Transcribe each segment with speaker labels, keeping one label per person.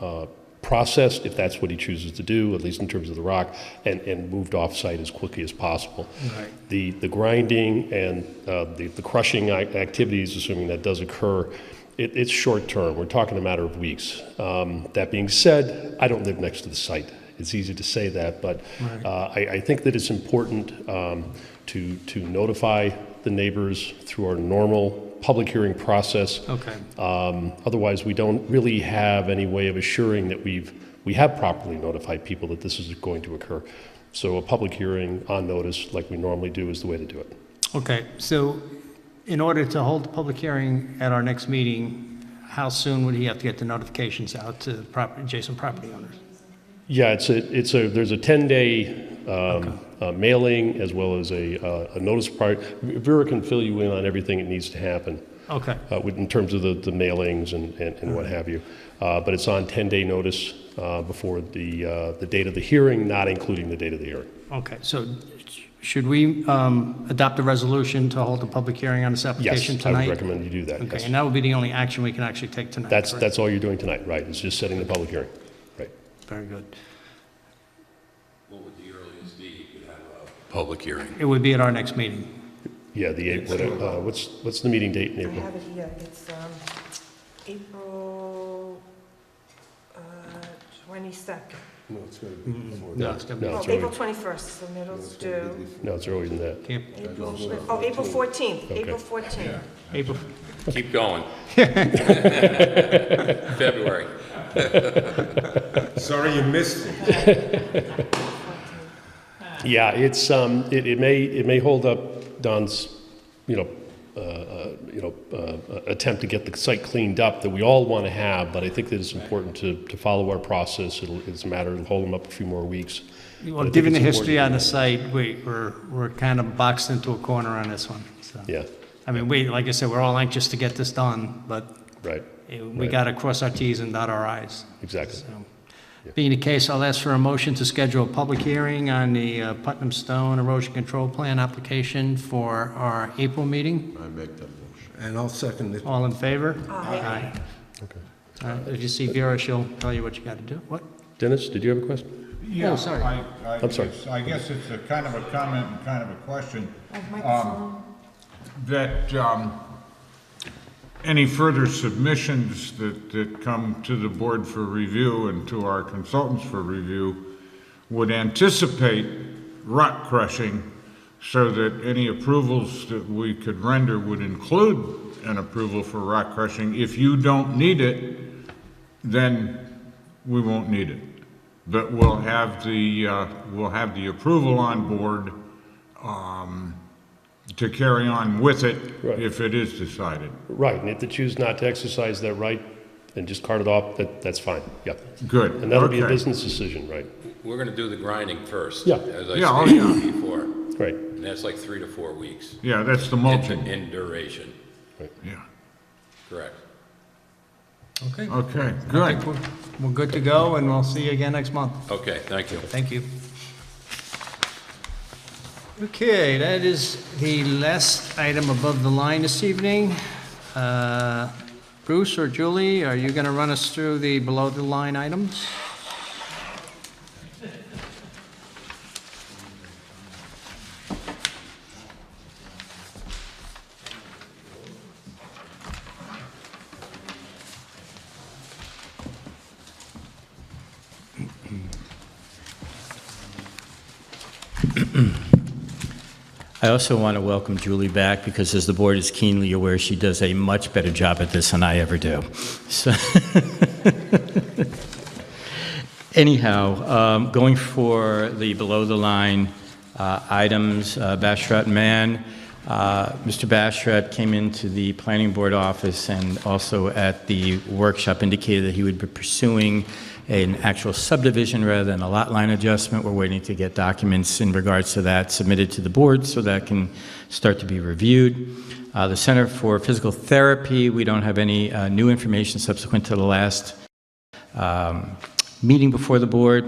Speaker 1: uh, processed, if that's what he chooses to do, at least in terms of the rock, and, and moved off-site as quickly as possible. The, the grinding and uh, the the crushing ac- activities, assuming that does occur, it, it's short-term. We're talking a matter of weeks. Um, That being said, I don't live next to the site. It's easy to say that, but uh, I, I think that it's important um, to, to notify the neighbors through our normal public hearing process.
Speaker 2: Okay,
Speaker 1: Um, Otherwise, we don't really have any way of assuring that we've, we have properly notified people that this is going to occur. So a public hearing on notice, like we normally do, is the way to do it.
Speaker 2: okay. So in order to hold the public hearing at our next meeting, how soon would he have to get the notifications out to the property, adjacent property owners?
Speaker 1: Yeah, it's a, it's a, there's a 10-day um, uh, mailing as well as a, uh, a notice part. Vera can fill you in on everything that needs to happen
Speaker 2: Okay,
Speaker 1: uh, with- in terms of the, the mailings and, and and
Speaker 2: Mm-hmm.
Speaker 1: what have you. Uh, But it's on 10-day notice uh, before the, uh, the date of the hearing, not including the date of the hearing.
Speaker 2: okay. So should we um, adopt a resolution to hold the public hearing on this
Speaker 1: Yes,
Speaker 2: application
Speaker 1: I would
Speaker 2: tonight?
Speaker 1: recommend you do that.
Speaker 2: Okay,
Speaker 1: yes.
Speaker 2: and that would be the only action we can actually take tonight,
Speaker 1: That's,
Speaker 2: correct?
Speaker 1: that's all you're doing tonight, right, is just setting the public hearing, right?
Speaker 2: Very good.
Speaker 3: What would the earliest be you could have a public hearing?
Speaker 2: It would be at our next meeting.
Speaker 1: Yeah, the, eight- what, uh, what's, what's the meeting date in
Speaker 4: I
Speaker 1: April?
Speaker 4: have it here, it's um, April uh, 22nd.
Speaker 5: No, it's gotta be before
Speaker 2: No,
Speaker 5: that.
Speaker 2: it's gonna be-
Speaker 1: No,
Speaker 4: Oh,
Speaker 1: it's
Speaker 4: April
Speaker 1: early,
Speaker 4: 21st, so middle's due.
Speaker 1: no, it's earlier than that.
Speaker 2: Can't-
Speaker 4: April, oh, April 14th,
Speaker 1: Okay.
Speaker 4: April 14th.
Speaker 2: April,
Speaker 3: Keep going. February.
Speaker 5: Sorry you missed it.
Speaker 1: Yeah, it's, um, it, it may, it may hold up Don's, you know, uh, uh, you know, uh, attempt to get the site cleaned up that we all want to have, but I think that it's important to, to follow our process. It'll, it's a matter of hold them up a few more weeks. But I
Speaker 2: well,
Speaker 1: think
Speaker 2: given the
Speaker 1: it's
Speaker 2: history on
Speaker 1: important.
Speaker 2: the site, we, we're, we're kind of boxed into a corner on this one, so.
Speaker 1: Yeah,
Speaker 2: I mean, we, like I said, we're all anxious to get this done, but
Speaker 1: right,
Speaker 2: eh, we
Speaker 1: Right.
Speaker 2: got to cross our Ts and dot our Is.
Speaker 1: exactly.
Speaker 2: So, Being the case, I'll ask for a motion to schedule a public hearing on the uh, Putnam Stone Erosion Control Plan application for our April meeting.
Speaker 5: And I'll second it.
Speaker 2: All in favor?
Speaker 4: Aye.
Speaker 2: Aye. Uh, If you see Vera, she'll tell you what you got to do. What?
Speaker 1: Dennis, did you have a question?
Speaker 6: Yeah,
Speaker 2: sorry.
Speaker 6: I- I
Speaker 1: I'm sorry.
Speaker 6: guess- I guess it's a kind of a comment and kind of a question,
Speaker 4: Microphone.
Speaker 6: that um, any further submissions that, that come to the board for review and to our consultants for review would anticipate rock crushing so that any approvals that we could render would include an approval for rock crushing. If you don't need it, then we won't need it. But we'll have the, uh, we'll have the approval on board um, to carry on with it
Speaker 1: Right.
Speaker 6: if it is decided.
Speaker 1: Right, and if they choose not to exercise that right and just cart it off, that, that's fine, yeah.
Speaker 6: Good.
Speaker 1: And that'll be a
Speaker 6: Okay.
Speaker 1: business decision, right?
Speaker 3: We're going to do the grinding first.
Speaker 1: Yeah.
Speaker 3: As
Speaker 6: Yeah,
Speaker 3: I
Speaker 6: oh,
Speaker 3: stated before,
Speaker 1: Right,
Speaker 3: and that's like three to four weeks
Speaker 6: Yeah, that's the
Speaker 3: in-
Speaker 6: mulching,
Speaker 3: in duration,
Speaker 6: yeah.
Speaker 3: correct?
Speaker 2: Okay.
Speaker 6: Okay, good.
Speaker 2: We're we're good to go, and we'll see you again next month.
Speaker 3: Okay, thank you.
Speaker 2: Thank you. Okay, that is the last item above the line this evening. Uh, Bruce or Julie, are you going to run us through the below-the-line items?
Speaker 7: I also want to welcome Julie back because, as the board is keenly aware, she does a much better job at this than I ever do. So, anyhow, um, going for the below the line uh, items, uh, Bashrat Mann. Uh, Mr. Bashrat came into the planning board office and also at the workshop indicated that he would be pursuing an actual subdivision rather than a lot line adjustment. We're waiting to get documents in regards to that submitted to the board so that can start to be reviewed. Uh, The Center for Physical Therapy, we don't have any uh, new information subsequent to the last um, meeting before the board.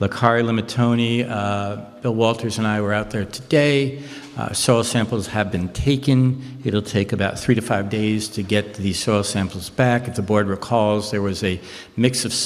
Speaker 7: Lakari Limatoni, uh, Bill Walters and I were out there today. Uh, Soil samples have been taken. It'll take about three to five days to get these soil samples back. If the board recalls, there was a mix of